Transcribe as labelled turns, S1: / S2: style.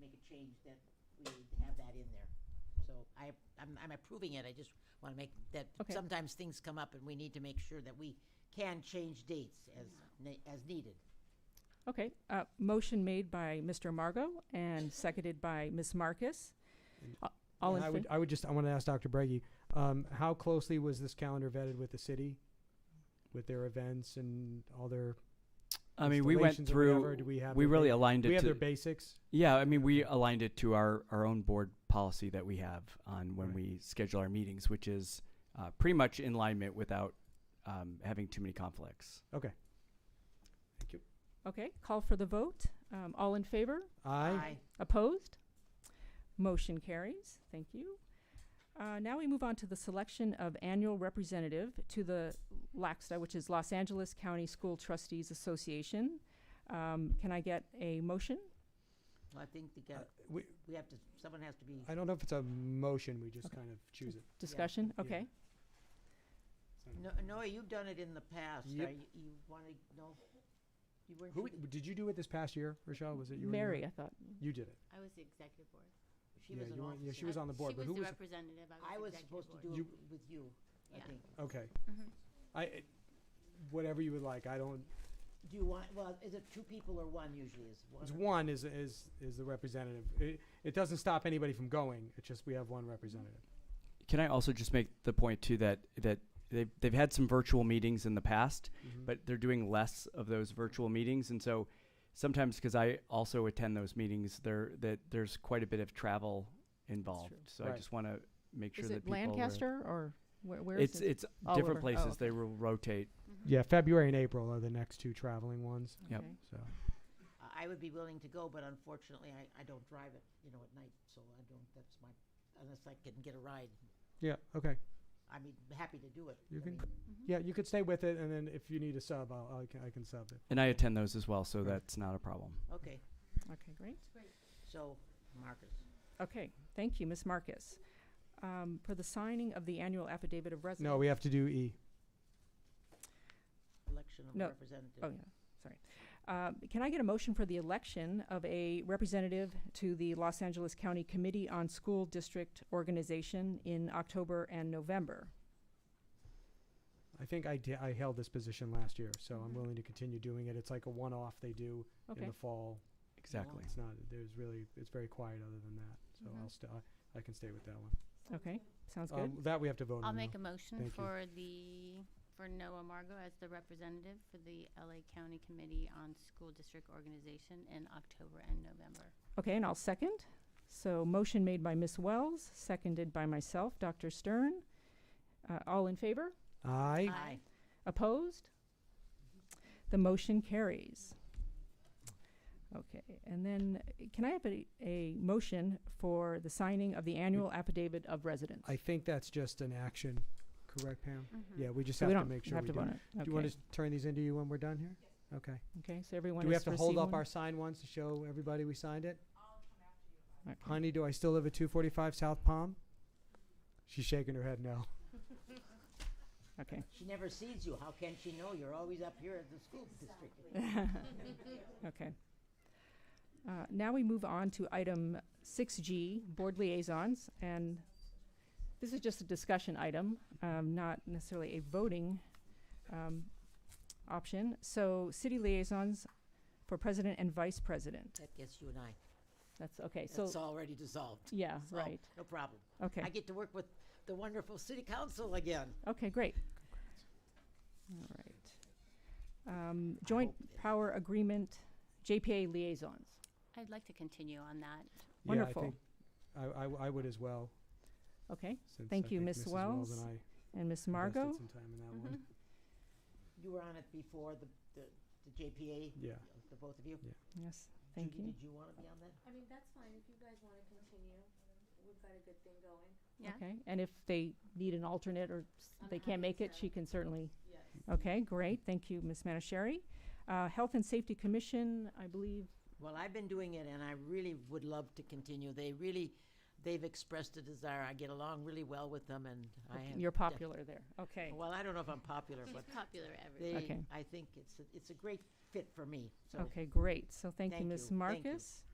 S1: make a change that we have that in there. So I, I'm, I'm approving it, I just want to make that,
S2: Okay.
S1: sometimes things come up and we need to make sure that we can change dates as, ne- as needed.
S2: Okay, uh, motion made by Mr. Margot and seconded by Ms. Marcus. A- All in
S3: And I would,
S2: favor?
S3: I would just, I want to ask Dr. Breggy, um, how closely was this calendar vetted with the city? With their events and all their,
S4: I mean, we went
S3: installations or
S4: through.
S3: whatever, do we have
S4: we
S3: their
S4: really
S3: ba-
S4: aligned
S3: do we
S4: it
S3: have
S4: to.
S3: their basics?
S4: yeah, I mean, we aligned it to our our own board policy that we have on when
S3: Right.
S4: we schedule our meetings, which is uh, pretty much in alignment without um, having too many conflicts.
S3: Okay. Thank you.
S2: Okay, call for the vote. Um, all in favor?
S3: Aye.
S2: Opposed? Motion carries. Thank you. Uh, now we move on to the selection of annual representative to the LACSTA, which is Los Angeles County School Trustees Association. Um, can I get a motion?
S1: Well, I think they got,
S3: Uh, We,
S1: we have to, someone has to be,
S3: I don't know if it's a motion, we just
S2: Okay.
S3: kind of choose it.
S2: Discussion?
S3: Yeah.
S2: Okay.
S3: It's not a-
S1: No, Noah, you've done it in the past,
S3: Yep.
S1: Are you, you want to, no? You weren't
S3: Who,
S1: sure that-
S3: did you do it this past year, Rochelle? Was it you? or you
S2: Mary,
S3: were-
S2: I thought.
S3: You did it.
S5: I was the executive board.
S1: She
S3: yeah,
S1: was an
S3: you weren't- yeah, she
S1: officer.
S3: was on the board,
S5: She
S3: but
S5: was
S3: who
S5: the
S3: was-
S5: representative,
S1: I
S5: I
S1: was
S5: was the
S1: supposed to
S5: executive
S1: do
S5: board.
S1: it
S3: You-
S1: with you, I
S5: Yeah.
S1: think.
S3: Okay.
S5: Mhm.
S3: I, it- whatever you would like, I don't,
S1: Do you want, well, is it two people or one usually is?
S3: It's
S1: or-
S3: one is, is, is the representative. It, it doesn't stop anybody from going. It's just we have one representative.
S4: Can I also just make the point too that that they've they've had some virtual meetings in the past, Mm-hmm.
S3: Mm-hmm.
S4: but they're doing less of those virtual meetings, and so sometimes because I also attend those meetings, there that there's quite a bit of travel involved. So I
S3: Right.
S4: just want to make sure
S2: Is
S4: that
S2: it
S4: people are-
S2: Lancaster or where, where
S4: It's
S2: is it?
S4: it's
S2: All
S4: different
S2: over. Oh,
S4: places.
S2: okay.
S4: They will rotate.
S5: Mhm.
S3: Yeah, February and April are the next two traveling ones.
S4: Yep.
S2: Okay.
S3: So
S1: I I would be willing to go, but unfortunately, I, I don't drive it, you know, at night, so I don't, that's my, unless I can get a ride.
S3: yeah, okay.
S1: I mean, happy to do it.
S3: You
S1: I
S3: can-
S1: mean,
S2: Mm-hmm.
S3: Yeah, you could stay with it, and then if you need a sub, I'll, I can I can sub it.
S4: And I attend those as well, so that's not a problem.
S1: Okay,
S2: Okay, great.
S1: so, Marcus,
S2: Okay, thank you, Ms. Marcus. Um, for the signing of the annual affidavit of residence.
S3: No, we have to do E.
S1: election of
S2: No.
S1: representative.
S2: Oh, yeah, sorry. Um, Can I get a motion for the election of a representative to the Los Angeles County Committee on School District Organization in October and November?
S3: I think I di- I held this position last year, so I'm
S2: Mhm.
S3: willing to continue doing it. It's like a one-off they do in
S2: Okay,
S3: the fall.
S4: Exactly.
S3: It's not there's really it's very quiet other than that. So I'll st- I, I can stay with that one.
S2: okay, sounds Mm-hmm. good.
S3: Um, that we have to vote
S5: I'll
S3: on.
S5: make
S3: though.
S5: a motion
S3: Thank you.
S5: for the, for Noah Margot as the representative for the LA County Committee on School District Organization in October and November.
S2: Okay, and I'll second. So motion made by Ms. Wells, seconded by myself, Dr. Stern. Uh, All in favor?
S3: Aye.
S5: Aye.
S2: Opposed? The motion carries. Okay, and then uh, can I have a, a motion for the signing of the annual affidavit of residence?
S3: Mm. I think that's just an action, correct, Pam?
S5: Mm-hmm.
S1: Mm-hmm.
S3: Yeah, we just
S2: So
S3: have
S2: we
S3: to
S2: don't
S3: make sure
S2: have
S3: we
S2: to
S3: do.
S2: vote
S3: it.
S2: on it.
S3: Do you want to turn these into you when we're done here? Okay.
S2: Okay, so everyone
S3: Do we
S2: has
S3: have to hold
S2: received
S3: up
S2: one?
S3: our signed ones to show everybody we signed it?
S2: Okay.
S3: Honey, do I still live at two forty-five South Palm? She's shaking her head no.
S2: Okay,
S1: She never sees you, how can she know? You're always up here at the school district.
S2: okay. Uh, Now we move on to item 6G, board liaisons, and this is just a discussion item, um, not necessarily a voting um, option. So city liaisons for president and vice president.
S1: That gets you and I,
S2: That's, okay, so,
S1: that's already dissolved.
S2: yeah,
S1: So,
S2: right,
S1: No problem.
S2: okay.
S1: I get to work with the wonderful city council again.
S2: Okay, great. All right. Um, Joint
S1: hope-
S2: Power Agreement, JPA liaisons.
S5: I'd like to continue on that.
S2: Wonderful.
S3: Yeah, I think I, I, I would as well.
S2: Okay,
S3: Since
S2: Thank you,
S3: I think
S2: Ms.
S3: Mrs.
S2: Wells.
S3: and I
S2: and Ms.
S3: invested
S2: Margot? Mm-hmm.
S3: some time in that one.
S1: You were on it before, the, the the JPA,
S3: Yeah.
S1: the both of you.
S2: Yes, thank
S1: Judy,
S2: you.
S1: Did you want to be on that?
S6: I mean, that's fine, if you guys wanna continue, we've got a good thing going.
S5: Yeah,
S2: Okay, and if they need an alternate or s-
S6: I'm
S2: they can't
S6: happy
S2: make it,
S6: to.
S2: she can certainly,
S6: Yes.
S2: okay, great, thank you, Ms. Manishari. Uh, Health and Safety Commission, I believe,
S1: Well, I've been doing it and I really would love to continue. They really, they've expressed a desire. I get along really well with them and I have.
S2: you're popular there, okay.
S1: Well, I don't know if I'm popular,
S5: she's
S1: but
S5: popular everywhere.
S1: they,
S2: Okay.
S1: I think it's, a- it's a great fit for me, so.
S2: Okay, great, so thank you,
S1: Thank
S2: Ms.
S1: you, thank you.
S2: Marcus.